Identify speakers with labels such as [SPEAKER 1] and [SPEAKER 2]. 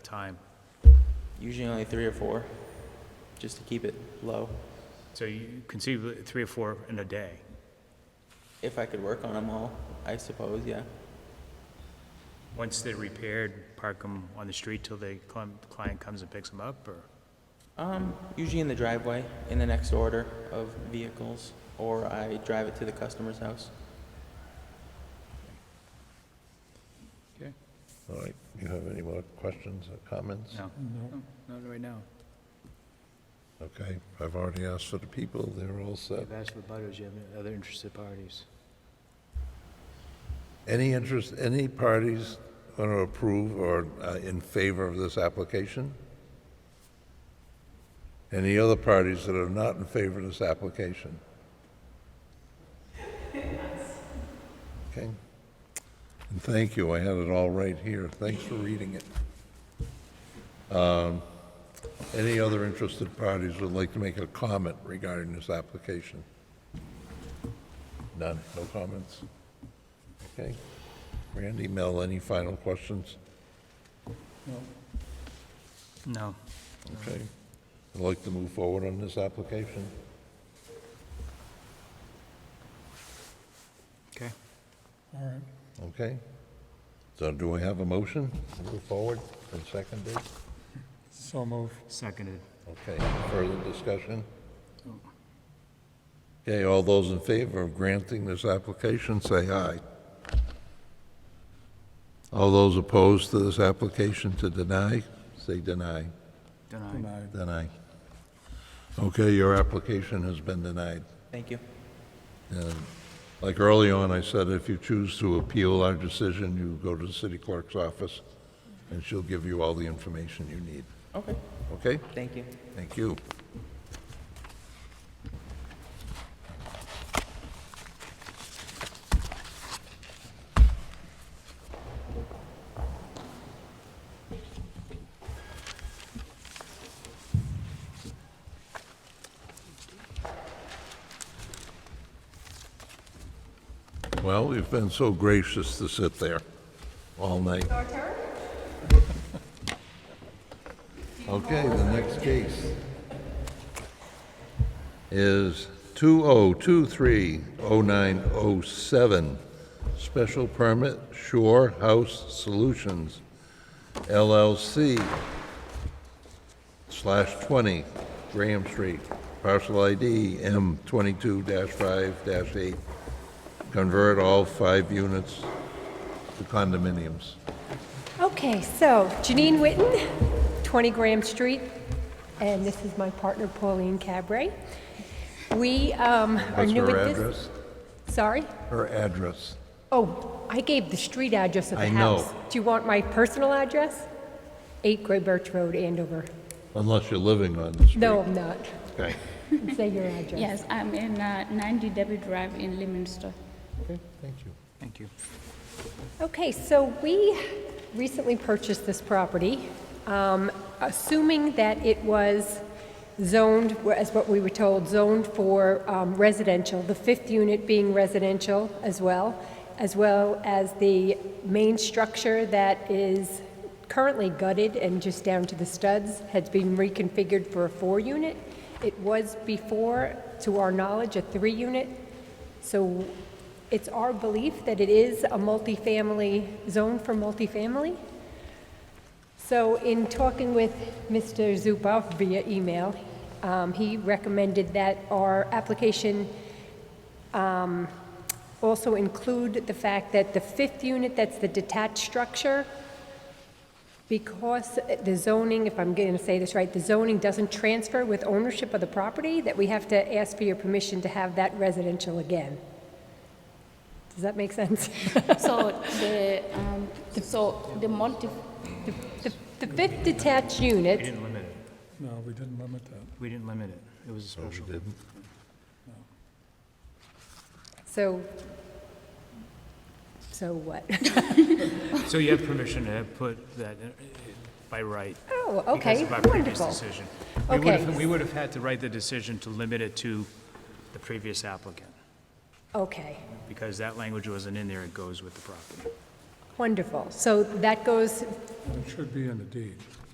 [SPEAKER 1] time?
[SPEAKER 2] Usually only three or four, just to keep it low.
[SPEAKER 1] So you conceivably, three or four in a day.
[SPEAKER 2] If I could work on them all, I suppose, yeah.
[SPEAKER 1] Once they're repaired, park them on the street till the cli- client comes and picks them up, or?
[SPEAKER 2] Um, usually in the driveway, in the next order of vehicles, or I drive it to the customer's house.
[SPEAKER 1] Okay.
[SPEAKER 3] All right, you have any more questions or comments?
[SPEAKER 1] No. No, not right now.
[SPEAKER 3] Okay, I've already asked for the people, they're all set.
[SPEAKER 4] I've asked for butters, you have any other interested parties?
[SPEAKER 3] Any interest, any parties want to approve or uh, in favor of this application? Any other parties that are not in favor of this application? Okay. And thank you, I had it all right here. Thanks for reading it. Um, Any other interested parties would like to make a comment regarding this application? None, no comments? Okay. Randy, Mel, any final questions?
[SPEAKER 1] No.
[SPEAKER 3] Okay. I'd like to move forward on this application.
[SPEAKER 1] Okay.
[SPEAKER 3] Okay? So do we have a motion to move forward and seconded?
[SPEAKER 5] So move.
[SPEAKER 1] Seconded.
[SPEAKER 3] Okay, further discussion? Okay, all those in favor of granting this application, say aye. All those opposed to this application to deny, say deny.
[SPEAKER 1] Denied.
[SPEAKER 3] Deny. Okay, your application has been denied.
[SPEAKER 2] Thank you.
[SPEAKER 3] And like early on, I said, if you choose to appeal our decision, you go to the city clerk's office, and she'll give you all the information you need.
[SPEAKER 2] Okay,
[SPEAKER 3] Okay?
[SPEAKER 2] thank you.
[SPEAKER 3] Thank you. Well, you've been so gracious to sit there all night. Okay, the next case is 20230907, special permit Shore House Solutions LLC slash 20 Graham Street, parcel ID M22-5-8. Convert all five units to condominiums.
[SPEAKER 6] Okay, so Janine Witten, 20 Graham Street, and this is my partner Pauline Cabray. We um, are
[SPEAKER 3] What's
[SPEAKER 6] new
[SPEAKER 3] her
[SPEAKER 6] at this.
[SPEAKER 3] address?
[SPEAKER 6] Sorry?
[SPEAKER 3] Her address.
[SPEAKER 6] Oh, I gave the street address of
[SPEAKER 3] I
[SPEAKER 6] the
[SPEAKER 3] know.
[SPEAKER 6] house. Do you want my personal address? 8 Gray Birch Road, Andover.
[SPEAKER 3] Unless you're living on the street.
[SPEAKER 6] No, I'm not.
[SPEAKER 3] Okay.
[SPEAKER 6] Say your address.
[SPEAKER 7] Yes, I'm in uh, 90 Debbie Drive in Leominster.
[SPEAKER 3] Okay, thank you.
[SPEAKER 1] Thank you.
[SPEAKER 6] Okay, so we recently purchased this property, um, assuming that it was zoned, as what we were told, zoned for um, residential, the fifth unit being residential as well, as well as the main structure that is currently gutted and just down to the studs, has been reconfigured for a four-unit. It was before, to our knowledge, a three-unit. So it's our belief that it is a multifamily, zone for multifamily. So in talking with Mr. Zupa via email, um, he recommended that our application um, also include the fact that the fifth unit, that's the detached structure, because the zoning, if I'm going to say this right, the zoning doesn't transfer with ownership of the property, that we have to ask for your permission to have that residential again. Does that make sense?
[SPEAKER 7] So the, um, so the multi,
[SPEAKER 6] The the fifth detached unit.
[SPEAKER 1] We didn't limit it.
[SPEAKER 5] No, we didn't limit that.
[SPEAKER 1] We didn't limit it. It was a special.
[SPEAKER 3] Didn't?
[SPEAKER 6] So, so what?
[SPEAKER 1] So you have permission to put that uh, by right.
[SPEAKER 6] Oh,
[SPEAKER 1] because
[SPEAKER 6] okay,
[SPEAKER 1] of our previous
[SPEAKER 6] wonderful.
[SPEAKER 1] decision. We would have-
[SPEAKER 6] Okay.
[SPEAKER 1] We would have had to write the decision to limit it to the previous applicant,
[SPEAKER 6] Okay,
[SPEAKER 1] because that language wasn't in there, it goes with the property.
[SPEAKER 8] Wonderful. So that goes
[SPEAKER 6] and it should be in the deed.